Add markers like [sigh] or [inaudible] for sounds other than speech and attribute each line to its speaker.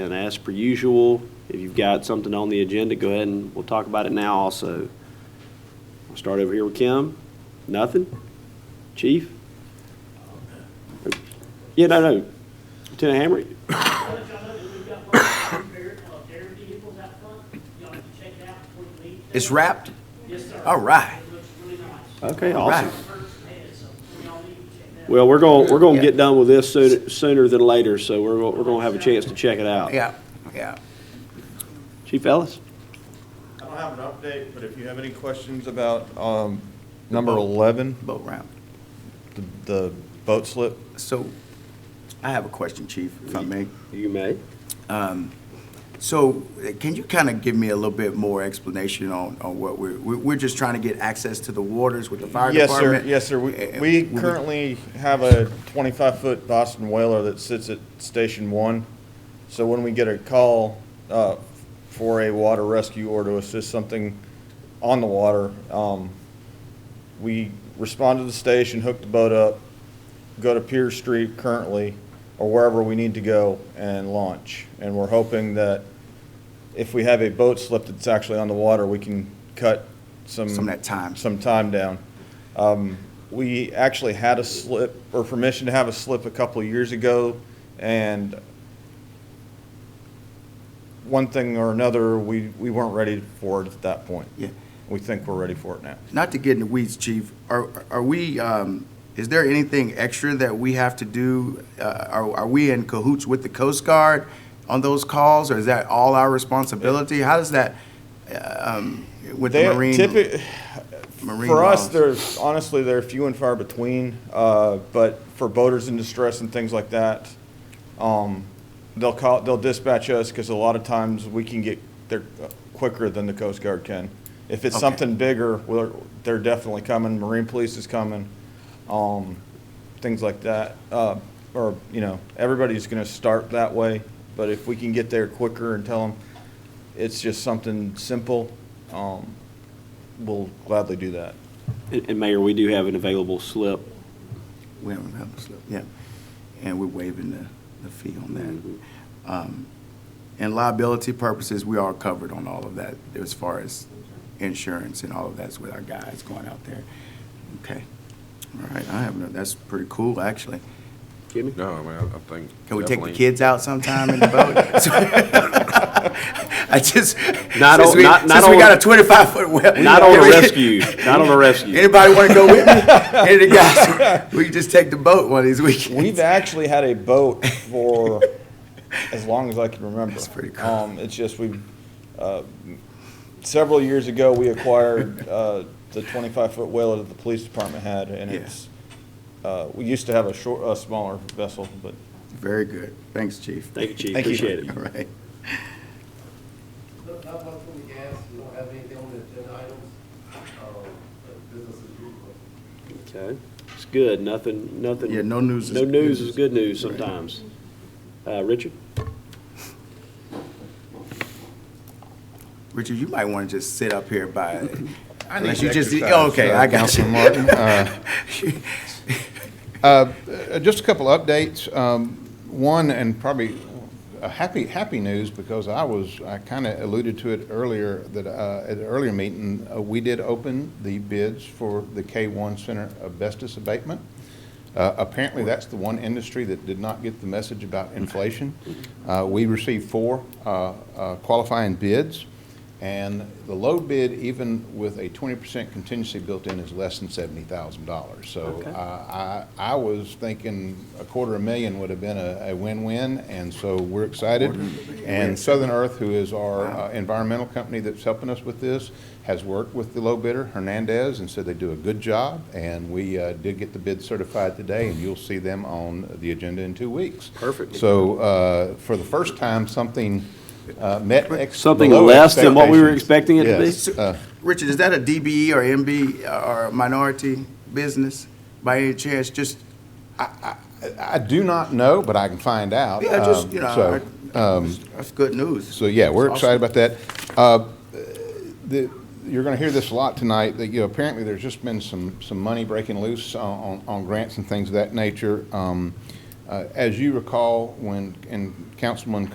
Speaker 1: And as per usual, if you've got something on the agenda, go ahead and we'll talk about it now also. We'll start over here with Kim. Nothing? Chief? Yeah, no, no. Lieutenant Hammer?
Speaker 2: I'll let y'all know that we've got one repair of their vehicles out front. Y'all have to check it out before you leave.
Speaker 3: It's wrapped?
Speaker 2: Yes, sir.
Speaker 3: All right.
Speaker 2: It looks really nice.
Speaker 1: Okay,
Speaker 3: All right.
Speaker 1: awesome.
Speaker 2: First hand, so when y'all leave, check that out.
Speaker 1: Well, we're going, we're going to get
Speaker 3: Yeah.
Speaker 1: done with this sooner, sooner than later, so we're, gonna- we're going to have a chance to check it out.
Speaker 3: Yeah, yeah.
Speaker 1: Chief Ellis?
Speaker 4: I don't have an update, but if you have any questions about um, number 11,
Speaker 3: Boat ramp.
Speaker 4: the- the boat slip,
Speaker 3: So I have a question, Chief, if I may. Um,
Speaker 1: You may.
Speaker 3: So uh, can you kind of give me a little bit more explanation on, on what we're, we're we're just trying to get access to the waters with the fire
Speaker 4: Yes, sir,
Speaker 3: department?
Speaker 4: yes, sir. We-
Speaker 3: Uh,
Speaker 4: We currently have a 25-foot Boston Whaler that sits at Station 1. So when we get a call uh, for a water rescue or to assist something on the water, um, we respond to the station, hook the boat up, go to Pier Street currently, or wherever we need to go and launch. And we're hoping that if we have a boat slip that's actually on the water, we can cut some.
Speaker 3: Some of that time.
Speaker 4: Some time down. Um, We actually had a slip, or permission to have a slip a couple of years ago, and one thing or another, we, we weren't ready for it at that point.
Speaker 3: Yeah.
Speaker 4: We think we're ready for it now.
Speaker 3: Not to get in the weeds, Chief, are, are we, um, is there anything extra that we have to do? Uh, are, are we in cahoots with the Coast Guard on those calls, or is that all our responsibility? How does that, uh, um, with the
Speaker 4: They
Speaker 3: Marine?
Speaker 4: typi-
Speaker 3: Marine
Speaker 4: for us,
Speaker 3: laws.
Speaker 4: there's honestly they're few and far between. Uh, but for boaters in distress and things like that, um, they'll call, they'll dispatch us because a lot of times we can get there uh, quicker than the Coast Guard can. If it's
Speaker 3: Okay.
Speaker 4: something bigger, we're, they're definitely coming. Marine Police is coming, um, things like that. Uh, or you know, everybody's going to start that way. But if we can get there quicker and tell them it's just something simple, um, we'll gladly do that.
Speaker 1: And and Mayor, we do have an available slip.
Speaker 3: We haven't had a slip, yeah. And we're waiving the, the fee on
Speaker 1: Mm-hmm.
Speaker 3: that. Um, And liability purposes, we are covered on all of that as far as insurance and all of that's with our guys going out there. Okay. All right, I have, no- that's pretty cool, actually.
Speaker 1: Jimmy?
Speaker 5: No, I mean, I I think.
Speaker 3: Can we take the
Speaker 5: definitely-
Speaker 3: kids out sometime in
Speaker 1: [laughs]
Speaker 3: the boat? [laughs] I just,
Speaker 1: Not
Speaker 3: since
Speaker 1: on-
Speaker 3: we,
Speaker 1: not- not
Speaker 3: since we got
Speaker 1: on-
Speaker 3: a twenty-five foot well.
Speaker 1: [laughs] Not on a rescue, not on a rescue.
Speaker 3: [laughs] Anybody want to
Speaker 1: [laughs]
Speaker 3: go with me? Any of the guys, we can just take the boat one of these weekends.
Speaker 4: We've actually had a boat for [laughs] as long as I can remember.
Speaker 3: That's pretty cool.
Speaker 4: Um, it's just we, uh, several years ago, we acquired, uh, the twenty-five foot whaler that the police department had, and
Speaker 3: Yeah.
Speaker 4: it's, uh, we used to have a short, a smaller vessel, but
Speaker 3: [laughs] Very good. Thanks, Chief.
Speaker 1: Thank you, Chief.
Speaker 4: Thank you.
Speaker 1: Appreciate
Speaker 3: All
Speaker 1: it.
Speaker 3: right.
Speaker 6: Not not much from the gas, we don't have anything on the agenda items, um, but business as usual.
Speaker 1: Okay. It's good. Nothing, nothing.
Speaker 3: Yeah, no news is
Speaker 1: No
Speaker 3: good
Speaker 1: news
Speaker 3: news.
Speaker 1: is good news sometimes. Uh, Richard?
Speaker 3: Richard, you might want to just sit up here
Speaker 7: [laughs]
Speaker 3: by,
Speaker 7: need
Speaker 3: unless you just,
Speaker 7: exercise,
Speaker 3: oh, okay,
Speaker 7: uh,
Speaker 3: I got you.
Speaker 7: Councilman [laughs] Martin. Uh, uh, Just a couple of updates. Um, One, and probably a happy, happy news, because I was, I kind of alluded to it earlier, that uh, at an earlier meeting, uh, we did open the bids for the K-1 Center asbestos abatement. Uh, Apparently, that's the one industry that did not get the message about inflation. Uh, We received four uh, uh, qualifying bids, and the low bid, even with a 20% contingency built in, is less than $70,000. So
Speaker 1: Okay.
Speaker 7: uh, I, I was thinking a quarter of a million would have been a a win-win, and so we're excited. And Southern Earth, who is our uh, environmental company that's helping us with this, has worked with the low bidder, Hernandez, and said they do a good job. And we uh, did get the bid certified today, and you'll see them on the agenda in two weeks.
Speaker 1: Perfect.
Speaker 7: So uh, for the first time, something uh, met ex-
Speaker 1: Something
Speaker 7: below
Speaker 1: less than what we were
Speaker 7: expectations.
Speaker 1: expecting it to be?
Speaker 7: Yes, uh,
Speaker 3: Richard, is that a DBE or MB or a minority business by any chance? Just,
Speaker 7: I do not know, but I can find out.
Speaker 3: yeah, just,
Speaker 7: Um,
Speaker 3: you
Speaker 7: so- um,
Speaker 3: know, I- that's good news.
Speaker 7: So, yeah, we're
Speaker 3: That's
Speaker 7: excited
Speaker 3: awesome.
Speaker 7: about that. Uh, the- You're going to hear this a lot tonight, that, you know, apparently there's just been some, some money breaking loose on- on, on grants and things of that nature. Um, uh, As you recall, when, and Councilman